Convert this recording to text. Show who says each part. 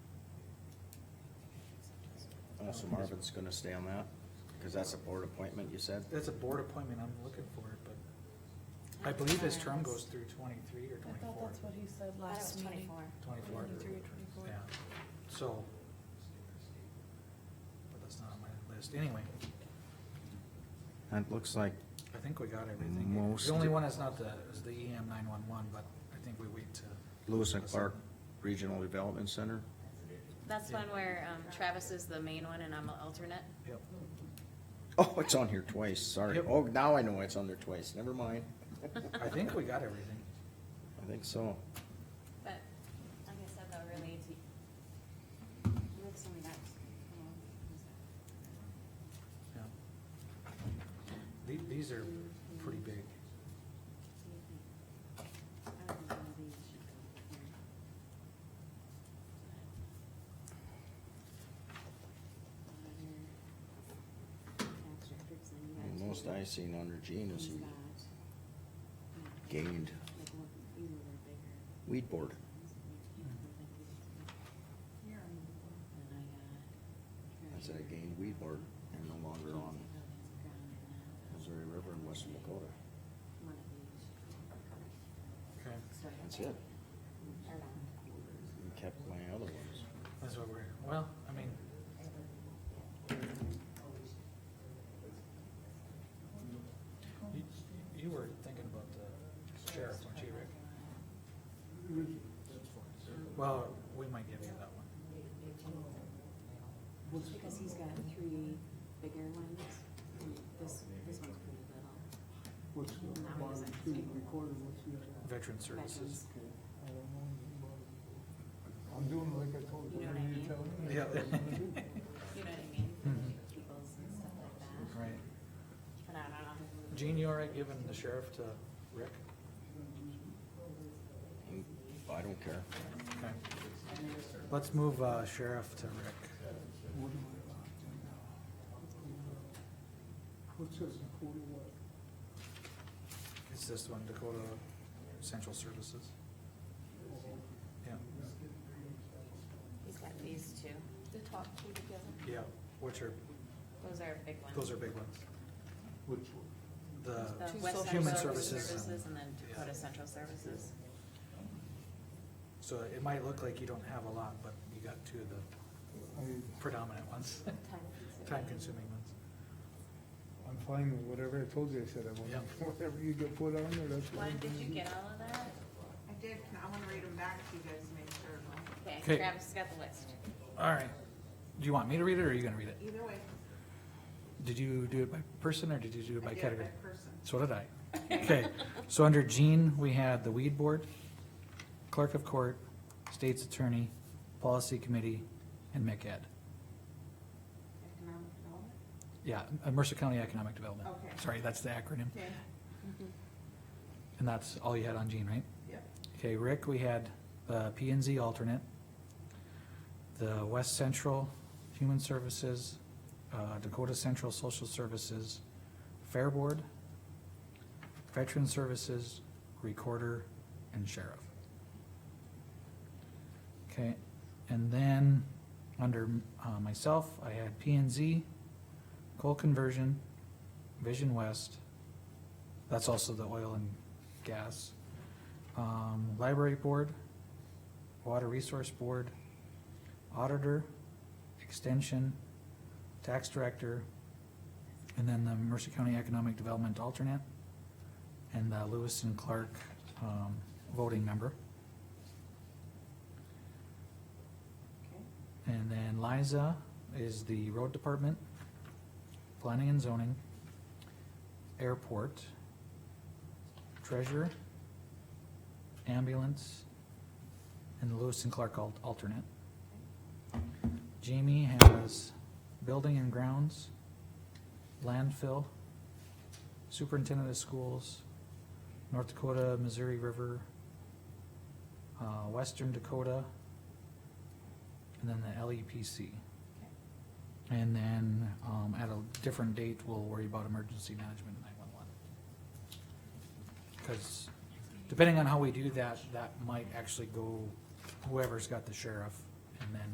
Speaker 1: Oh, so Marvin's gonna stay on that, cause that's a board appointment, you said?
Speaker 2: That's a board appointment, I'm looking for it, but I believe his term goes through twenty-three or
Speaker 3: I thought
Speaker 2: twenty-four.
Speaker 3: that's what he said
Speaker 4: I thought it was
Speaker 3: last meeting.
Speaker 4: twenty-four.
Speaker 2: Twenty-four.
Speaker 3: 23 or 24.
Speaker 2: Yeah, so. But that's not on my list, anyway,
Speaker 1: That looks like,
Speaker 2: I think we got everything.
Speaker 1: Most-
Speaker 2: The only one that's not the, is the E EM nine-one-one, but I think we wait to.
Speaker 1: Lewis and Clark Regional Development Center,
Speaker 4: That's one where um, Travis is the main one and I'm an alternate.
Speaker 2: Yep,
Speaker 1: oh, it's on here twice, sorry,
Speaker 2: Yep.
Speaker 1: oh, now I know it's on there twice, never mind,
Speaker 2: I think we got everything.
Speaker 1: I think so.
Speaker 4: But like I said, though, really, it's, it's only that, you know, it's that-
Speaker 2: Yeah. The- These are pretty big.
Speaker 4: I don't know how these should go here. Water, tax records, and you
Speaker 1: And
Speaker 4: guys-
Speaker 1: Most I seen under Gene is
Speaker 4: He's
Speaker 1: he
Speaker 4: got, yeah,
Speaker 1: gained
Speaker 4: like, one- these are bigger.
Speaker 1: weed board, I said I gained weed board and no longer on Missouri River in Western Dakota,
Speaker 2: Okay,
Speaker 1: that's it, and kept my other ones.
Speaker 2: that's what we're, well, I mean, you, you were thinking about the sheriff, weren't you, Rick? Well, we might give you that one.
Speaker 4: Because he's got three bigger ones, and this, this one's pretty little.
Speaker 5: What's the
Speaker 4: Not what
Speaker 5: bottom
Speaker 4: is it?
Speaker 5: two recorded, what's the other? one?
Speaker 2: Veteran Services.
Speaker 4: Veterans.
Speaker 5: Okay, I don't know anything about it. I'm doing like I told
Speaker 4: You
Speaker 5: you,
Speaker 4: know
Speaker 5: what
Speaker 4: what I mean?
Speaker 5: are you telling me?
Speaker 2: Yeah.
Speaker 4: You know what I mean?
Speaker 2: Mhm.
Speaker 4: Peoples and stuff like that.
Speaker 2: Right.
Speaker 4: But I don't know.
Speaker 2: Gene, you all right giving the sheriff to Rick?
Speaker 1: And I don't care,
Speaker 2: Okay. Let's move uh, sheriff to Rick.
Speaker 5: What am I about to now? What's this, forty-one?
Speaker 2: It's this one, Dakota Central Services. Yeah,
Speaker 4: He's got these two.
Speaker 3: The top two together.
Speaker 2: yeah, which are,
Speaker 4: Those are big ones.
Speaker 2: those are big ones.
Speaker 5: Which one?
Speaker 2: The,
Speaker 4: The
Speaker 3: Two
Speaker 4: West Central
Speaker 3: social
Speaker 2: services.
Speaker 4: Services and then Dakota
Speaker 2: Yeah.
Speaker 4: Central Services.
Speaker 2: so it might look like you don't have a lot, but you got two of the
Speaker 5: I,
Speaker 2: predominant ones, time consuming ones.
Speaker 5: I'm fine with whatever I told you, I said I
Speaker 2: Yeah.
Speaker 5: want, whatever you get put on there, that's. what
Speaker 4: Why,
Speaker 5: I'm
Speaker 4: did you
Speaker 5: doing.
Speaker 4: get all of that?
Speaker 6: I did, can- I wanna read them back to you guys to make sure.
Speaker 4: Okay,
Speaker 2: Okay.
Speaker 4: Travis has got the list.
Speaker 2: All right. Do you want me to read it or are you gonna read it?
Speaker 6: Either way.
Speaker 2: Did you do it by person or did you do it
Speaker 6: I
Speaker 2: by
Speaker 6: did it
Speaker 2: category?
Speaker 6: By person.
Speaker 2: So did I. Okay, so under Gene, we had the weed board, clerk of court, state's attorney, policy committee, and MCED.
Speaker 6: Economic development?
Speaker 2: Yeah, uh, Mercer County Economic Development.
Speaker 6: Okay.
Speaker 2: Sorry, that's the acronym.
Speaker 6: Okay. Mm-hmm.
Speaker 2: And that's all you had on Gene, right?
Speaker 6: Yep.
Speaker 2: Okay, Rick, we had the P and Z alternate, the West Central Human Services, uh, Dakota Central Social Services, Fair Board, Veteran Services, Recorder, and Sheriff. Okay, and then, under uh, myself, I had P and Z, Coal Conversion, Vision West, that's also the oil and gas, um, Library Board, Water Resource Board, Auditor, Extension, Tax Director, and then the Mercer County Economic Development Alternate, and the Lewis and Clark, um, voting member.
Speaker 6: Okay.
Speaker 2: And then Liza is the road department, planning and zoning, airport, treasurer, ambulance, and Lewis and Clark al- alternate. Jamie has building and grounds, landfill, superintendent of schools, North Dakota, Missouri River, uh, Western Dakota, and then the LEPC. And then, um, at a different date, we'll worry about emergency management and nine-one-one. Cause depending on how we do that, that might actually go whoever's got the sheriff, and then